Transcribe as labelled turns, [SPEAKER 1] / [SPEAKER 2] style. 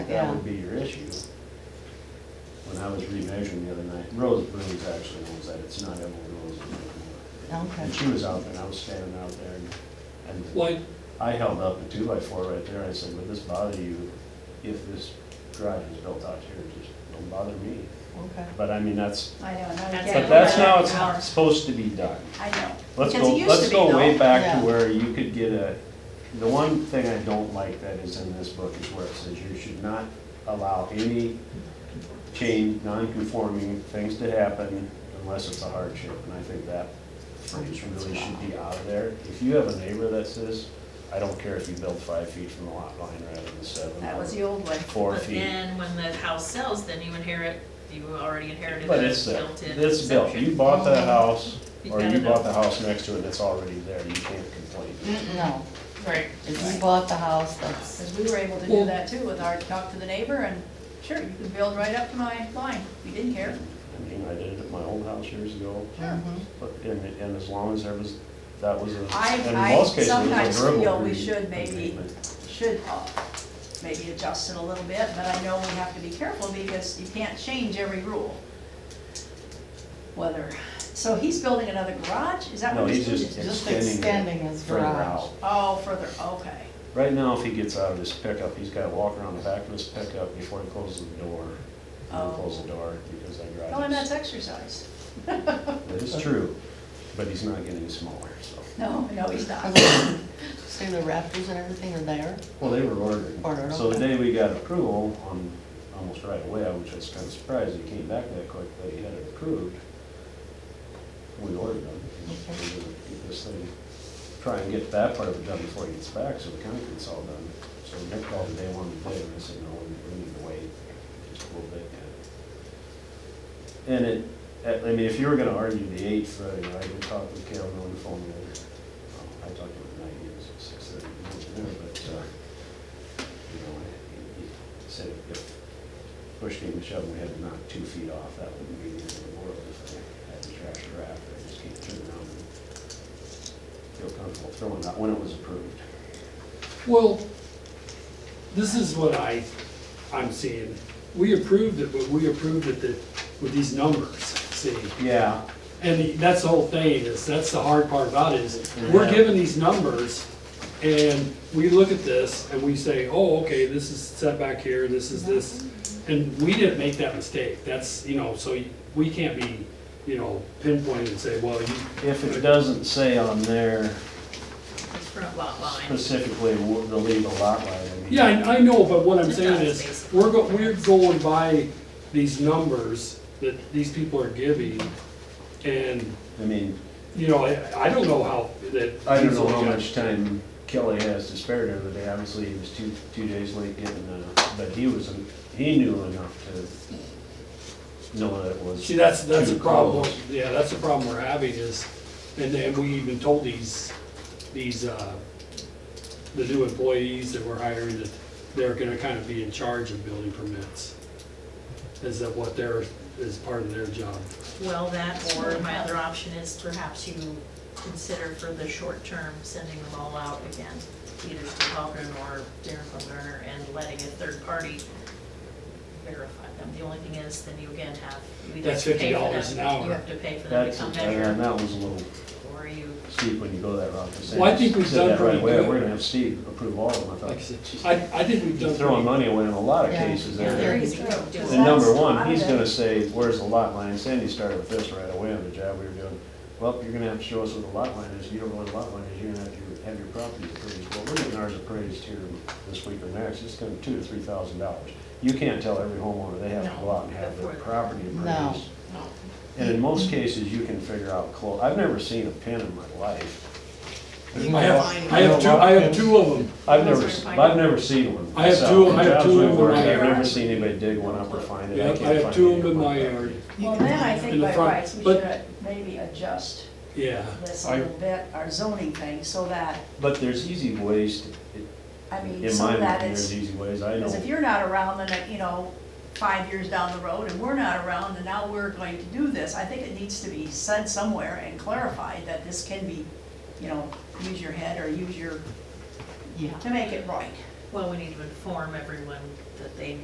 [SPEAKER 1] that
[SPEAKER 2] Yeah.
[SPEAKER 1] would be your issue. When I was remeasuring the other night, Rose Boone's actually owns that, it's not Emily Rose Boone anymore.
[SPEAKER 2] Okay.
[SPEAKER 1] And she was out there, and I was standing out there, and, and
[SPEAKER 3] Why,
[SPEAKER 1] I held up a two by four right there, I said, would this bother you if this garage was built out here, just don't bother me.
[SPEAKER 2] Okay.
[SPEAKER 1] But I mean, that's,
[SPEAKER 4] I know, now
[SPEAKER 5] That's
[SPEAKER 4] you
[SPEAKER 1] but
[SPEAKER 4] can't.
[SPEAKER 1] that's
[SPEAKER 4] go
[SPEAKER 1] how
[SPEAKER 4] back
[SPEAKER 1] it's
[SPEAKER 4] hours.
[SPEAKER 1] supposed to be done.
[SPEAKER 4] I know.
[SPEAKER 1] Let's
[SPEAKER 5] Because
[SPEAKER 1] go,
[SPEAKER 5] it used
[SPEAKER 1] let's
[SPEAKER 5] to be,
[SPEAKER 1] go way
[SPEAKER 5] though.
[SPEAKER 1] back
[SPEAKER 2] Yeah.
[SPEAKER 1] to where you could get a, the one thing I don't like that is in this book is where it says you should not allow any change, non-conforming things to happen unless it's a hardship, and I think that phrase really should be out of there. If you have a neighbor that says, I don't care if you build five feet from the lot line rather than seven.
[SPEAKER 4] That
[SPEAKER 1] or
[SPEAKER 4] was the old way.
[SPEAKER 1] Four
[SPEAKER 5] But
[SPEAKER 1] feet.
[SPEAKER 5] then when the house sells, then you inherit, you already inherited
[SPEAKER 1] But it's,
[SPEAKER 5] the
[SPEAKER 1] uh,
[SPEAKER 5] built-in.
[SPEAKER 1] it's built,
[SPEAKER 5] exemption.
[SPEAKER 1] you bought that house,
[SPEAKER 5] You
[SPEAKER 1] or
[SPEAKER 5] got
[SPEAKER 1] you
[SPEAKER 5] it.
[SPEAKER 1] bought the house next to it, it's already there, you can't complain.
[SPEAKER 2] No,
[SPEAKER 5] Right.
[SPEAKER 2] if you bought the house, that's,
[SPEAKER 4] Because we were able to do that too with our talk to the neighbor and, sure, you can build right up to my line. We didn't care.
[SPEAKER 1] I mean, I did it at my old house years ago,
[SPEAKER 4] Sure.
[SPEAKER 1] but, and, and as long as there was, that was a,
[SPEAKER 4] I-
[SPEAKER 1] in
[SPEAKER 4] I
[SPEAKER 1] most cases, it
[SPEAKER 4] sometimes
[SPEAKER 1] was a verbal.
[SPEAKER 4] feel we
[SPEAKER 1] agreement.
[SPEAKER 4] should maybe- Should uh, maybe adjust it a little bit, but I know we have to be careful because you can't change every rule. Whether, so he's building another garage? Is that
[SPEAKER 1] No,
[SPEAKER 4] what
[SPEAKER 1] he's
[SPEAKER 4] he's doing?
[SPEAKER 1] just
[SPEAKER 2] Just
[SPEAKER 1] extending
[SPEAKER 2] extending
[SPEAKER 1] it
[SPEAKER 2] his
[SPEAKER 1] further
[SPEAKER 2] garage.
[SPEAKER 1] out.
[SPEAKER 4] Oh, further, okay.
[SPEAKER 1] Right now, if he gets out of his pickup, he's gotta walk around the back of his pickup before he closes the door. He
[SPEAKER 4] Oh.
[SPEAKER 1] will close the door because that garage is.
[SPEAKER 4] Oh, and that's exercise.
[SPEAKER 1] That is true, but he's not getting smaller, so.
[SPEAKER 4] No, no, he's not.
[SPEAKER 2] see the rafters and everything are there?
[SPEAKER 1] Well, they were ordered.
[SPEAKER 2] Ordered,
[SPEAKER 1] So the
[SPEAKER 2] okay.
[SPEAKER 1] day we got approval on, almost right away, I was just kind of surprised it came back that quick, they had it approved. We ordered them.
[SPEAKER 2] Okay.
[SPEAKER 1] We're gonna Get this thing, try and get that part of it done before it gets back, so the concrete's all done. So Nick called the day one today, and I said, no, we- we need to wait just a little bit. yet." And it, I mean, if you were gonna argue the eighth, Friday night, I could talk with Calvin on the phone later. I talked to him at night, he was at six thirty, he was there, but, uh, you know, he he said if push came to shove, and we had to knock two feet off, that wouldn't be the end of the world if I had to trash a raft, I just can't turn around and feel comfortable throwing that when it was approved.
[SPEAKER 3] well, this is what I, I'm seeing. We approved it, but we approved it that, with these numbers, see?
[SPEAKER 1] Yeah,
[SPEAKER 3] And that's the whole thing, is, that's the hard part about it, is we're given these numbers, and we look at this, and we say, oh, okay, this is setback here, this is this, and we didn't make that mistake, that's, you know, so we can't be, you know, pinpointed and say, well, you,
[SPEAKER 1] if it doesn't say on there
[SPEAKER 5] It's front lot line.
[SPEAKER 1] specifically wha- the legal lot line, I mean.
[SPEAKER 3] Yeah, I, I know, but what I'm
[SPEAKER 5] It
[SPEAKER 3] saying
[SPEAKER 5] does,
[SPEAKER 3] is,
[SPEAKER 5] basically.
[SPEAKER 3] we're go, we're going by these numbers that these people are giving, and,
[SPEAKER 1] I mean,
[SPEAKER 3] you know, I, I don't know how that.
[SPEAKER 1] I don't know how much time Kelly has to spare the other day, obviously he was two, two days late getting, uh, but he was, he knew enough to know that it was.
[SPEAKER 3] See, that's, that's
[SPEAKER 1] too
[SPEAKER 3] a problem,
[SPEAKER 1] close.
[SPEAKER 3] yeah, that's a problem we're having is, and then we even told these, these, uh, the new employees that we're hiring that they're gonna kind of be in charge of building permits. Is that what their, is part of their job.
[SPEAKER 5] Well, that, or my other option is perhaps you consider for the short term, sending them all out again, either to Halgren or Darren from Garner, and letting a third party verify them. The only thing is, then you again have, you either
[SPEAKER 3] That's
[SPEAKER 5] have to pay for
[SPEAKER 3] $50
[SPEAKER 5] them,
[SPEAKER 3] an hour.
[SPEAKER 5] you have to pay for them to
[SPEAKER 1] That's,
[SPEAKER 5] come
[SPEAKER 1] and
[SPEAKER 5] measure,
[SPEAKER 1] that was a little
[SPEAKER 5] or you
[SPEAKER 1] steep when you go that route. 'cause they
[SPEAKER 3] Well, I think we've
[SPEAKER 1] said
[SPEAKER 3] done
[SPEAKER 1] that right
[SPEAKER 3] pretty
[SPEAKER 1] away,
[SPEAKER 3] good.
[SPEAKER 1] We're gonna have Steve approve all of them, I
[SPEAKER 3] Like I
[SPEAKER 1] thought.
[SPEAKER 3] said, I, I think we've
[SPEAKER 1] You're
[SPEAKER 3] done.
[SPEAKER 1] Throwing money away in a lot of
[SPEAKER 2] Yeah.
[SPEAKER 1] cases
[SPEAKER 5] Yeah,
[SPEAKER 1] there.
[SPEAKER 5] there
[SPEAKER 4] Very
[SPEAKER 5] is.
[SPEAKER 4] true.
[SPEAKER 5] And
[SPEAKER 1] And number one, he's gonna say, where's the lot line? Sandy started with this right away on the job we were doing. Well, you're gonna have to show us what the lot line is. You don't know what the lot line is, you're gonna have to have your property appraised. Well, we're getting ours appraised here this week or next. It's gonna be two to three thousand dollars. You can't tell every homeowner they have to go out and have their property
[SPEAKER 2] No.
[SPEAKER 1] appraised. And in most cases, you can figure out close. I've never seen a pin in my life. There's
[SPEAKER 3] I
[SPEAKER 1] no-
[SPEAKER 3] have, I have two, I have two of them.
[SPEAKER 1] I've never, s- I've never seen one.
[SPEAKER 3] I have two-
[SPEAKER 1] myself.
[SPEAKER 3] I have
[SPEAKER 1] Jobs
[SPEAKER 3] two
[SPEAKER 1] we've
[SPEAKER 3] in my
[SPEAKER 1] worked, I've
[SPEAKER 3] yard.
[SPEAKER 1] never seen anybody dig one up or find it.
[SPEAKER 3] Yeah,
[SPEAKER 1] can't
[SPEAKER 3] I have
[SPEAKER 1] find
[SPEAKER 3] two
[SPEAKER 1] it
[SPEAKER 3] of them in
[SPEAKER 1] anywhere.
[SPEAKER 3] my yard.
[SPEAKER 4] Well, then I
[SPEAKER 3] in
[SPEAKER 4] think
[SPEAKER 3] the
[SPEAKER 4] by
[SPEAKER 3] front,
[SPEAKER 4] rights, we
[SPEAKER 3] but-
[SPEAKER 4] should maybe adjust
[SPEAKER 3] Yeah,
[SPEAKER 4] this a
[SPEAKER 1] I-
[SPEAKER 4] little bit, our zoning thing, so that,
[SPEAKER 1] But there's easy ways, to-
[SPEAKER 4] I mean,
[SPEAKER 1] in
[SPEAKER 4] so
[SPEAKER 1] my
[SPEAKER 4] that
[SPEAKER 1] opinion,
[SPEAKER 4] it's,
[SPEAKER 1] there's easy ways, I
[SPEAKER 4] because
[SPEAKER 1] know.
[SPEAKER 4] if you're not around, then, you know, five years down the road, and we're not around, and now we're going to do this, I think it needs to be said somewhere and clarified that this can be, you know, use your head or use your,
[SPEAKER 2] yeah.
[SPEAKER 4] to make it right.
[SPEAKER 5] Well, we need to inform everyone that they